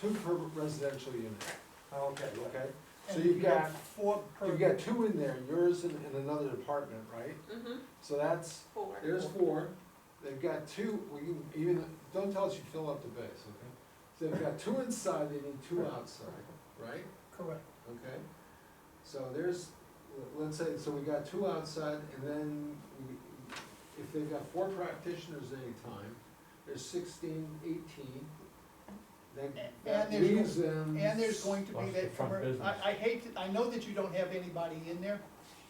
two per residential unit, Okay, okay. okay? So And you've got, Four per. you've got two in there, yours and, and another apartment, right? Mm-hmm, So that's, four. there's four, they've got two, we can even, don't tell us you fill up the base, okay? So they've got two inside, they need two outside, right? Correct. Okay, so there's, let's say, so we got two outside, and then we- if they've got four practitioners at any time, there's sixteen, eighteen. That, And that there's- leaves them. And there's going to be Plus the that, front commer- business. I, I hate, to- I know that you don't have anybody in there,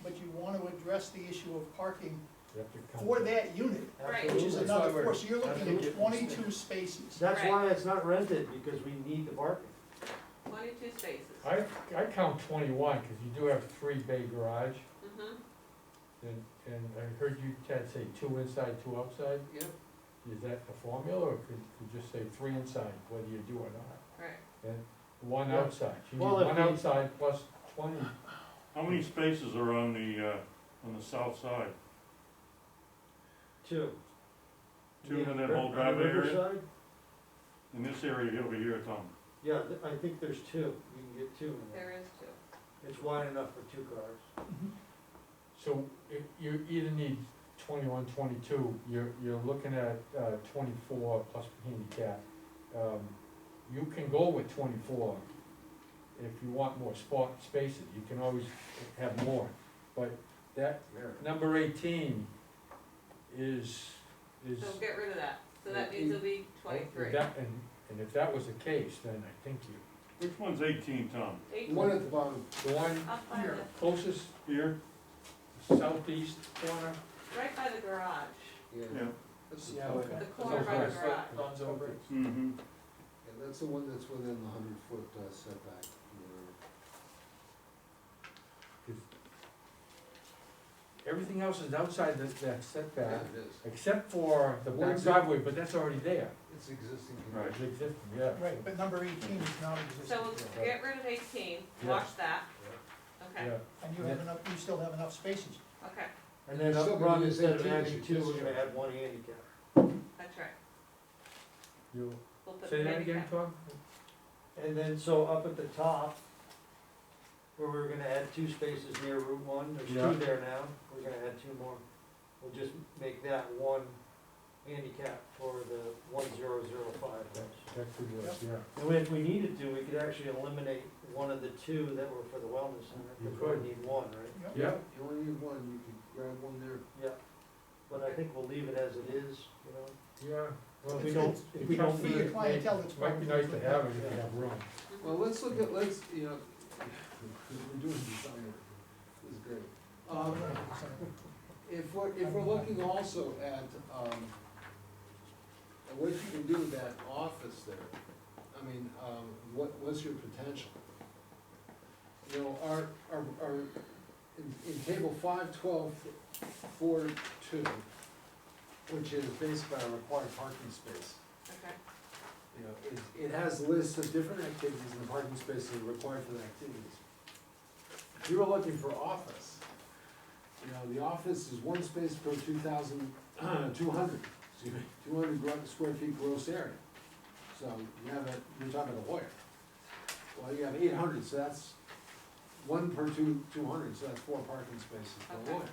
but you wanna address the issue of parking You have to count for it. that unit, Right. which is Absolutely. another That's why four, so you're I looking think at it- twenty-two spaces. That's Right. why it's not rented, because we need the parking. Twenty-two spaces. I, I count twenty-one, cause you do have three bay garage, Mm-hmm, and, and I heard you, Chad, say two inside, two outside, Yep, is that the formula, or could you just say three inside, whether you do or not? right. One Yeah. outside, you need Well, if one you- outside plus twenty, How many spaces are on the, uh, on the south side? Two. Two in that Ri- whole driveway area? Riverside? In this area over here, Tom? Yeah, th- I think there's two, you can get two in there. There is two. It's wide enough for two cars. so i- you either need twenty-one, twenty-two, you're, you're looking at, uh, twenty-four plus handicap. Um, You can go with twenty-four if you want more spot, spaces, you can always have more, but that, Number eighteen is, is. So get rid of that. So that means it'll be twenty-three. That- And, and if that was the case, then I think you, Which one's eighteen, Tom? the Eight. one at the bottom, the one Up by Here. the, closest Here? southeast corner. right by the garage. yeah. Yeah. That's- Yeah, but- okay. The corner by the garage. Runs over. it. Mm-hmm. Yeah, that's the one that's within the hundred foot uh, setback. from the road. Everything else is outside that, that setback, Yeah, it is, except for the one That's it. driveway, but that's already there. it's existing. Right. It's existing, yeah. Right, but number eighteen is not existing, So we'll get rid of eighteen, wash that, okay, Yeah, and you have enough, you still have enough spaces. okay, And then up Still gonna front, use instead of 18 as adding your two, we're gonna discharge. add one handicap. that's right. you, We'll put say that maybe again, Tom? And then, so up at the top, where we were gonna add two spaces near Route One, there's Yeah. two there now, we're gonna add two more. We'll just make that one handicap for the one zero zero five house. That could work, yeah. And if we needed to, we could actually eliminate one of the two that were for the wellness center, You because we could. only need one, right? Yeah, You only need one, you can grab one there. Yeah, but I think we'll leave it as it is, you know? yeah. Well, If it's- we don't, it's- if we don't For need your it, clientele, it's Might probably. be nice to have it if you have room. Mhm. Well, let's look at, let's, you know, we're doing design, work. this is great. Um, if we're, if we're looking also at, um, at what you can do with that office there, I mean, um, what, what's your potential? You know, our, our, our, in, in table five twelve four two, which is based by a required parking space. Okay, You know, it, it has lists of different activities and the parking spaces that are required for the activities. If you were looking for office, you know, the office is one space per two thousand, two hundred, excuse me, two hundred square feet gross area. So you have a, you're talking a lawyer. Well, you have eight hundred, so that's one per two, two hundred, so that's four parking spaces per Okay. lawyer.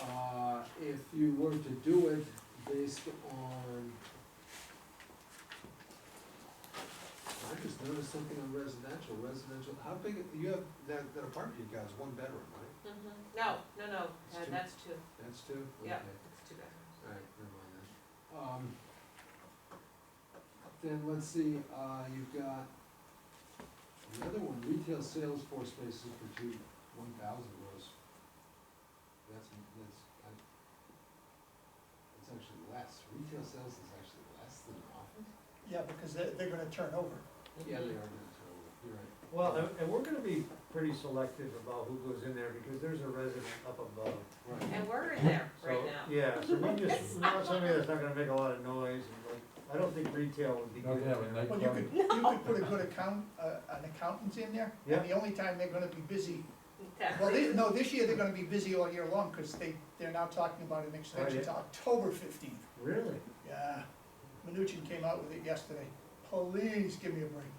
Uh, if you were to do it based on I just noticed something on residential, residential, how big, you have, that, that apartment you got is one bedroom, right? mhm. No, no, no, It's Uh, two. that's two, That's two? Okay. yeah, it's two bedrooms. Alright, never mind that. Um, then let's see, uh, you've got another one, retail sales floor spaces for two, one thousand gross. That's, that's, I, that's actually less, retail sales is actually less than office? Yeah, because they, they're gonna turn over. Yeah, they Mhm. are, gonna tell you. you're right. Well, and, and we're gonna be pretty selective about who goes in there, because there's a resident up above. Right. And we're in there right So, now. Yeah, so we just, we want somebody that's not gonna make a lot of noise, and like, I don't think retail would be Not good. to have a there. Well, you could, you could put a good account, uh, an accountant in there, Yeah. and the only time they're gonna be busy, Tax well, season. this, no, this year they're gonna be busy all year long, cause they, they're now talking about an extension yeah. to October fifteenth. Really? Yeah, Mnuchin came out with it yesterday, please give me a break.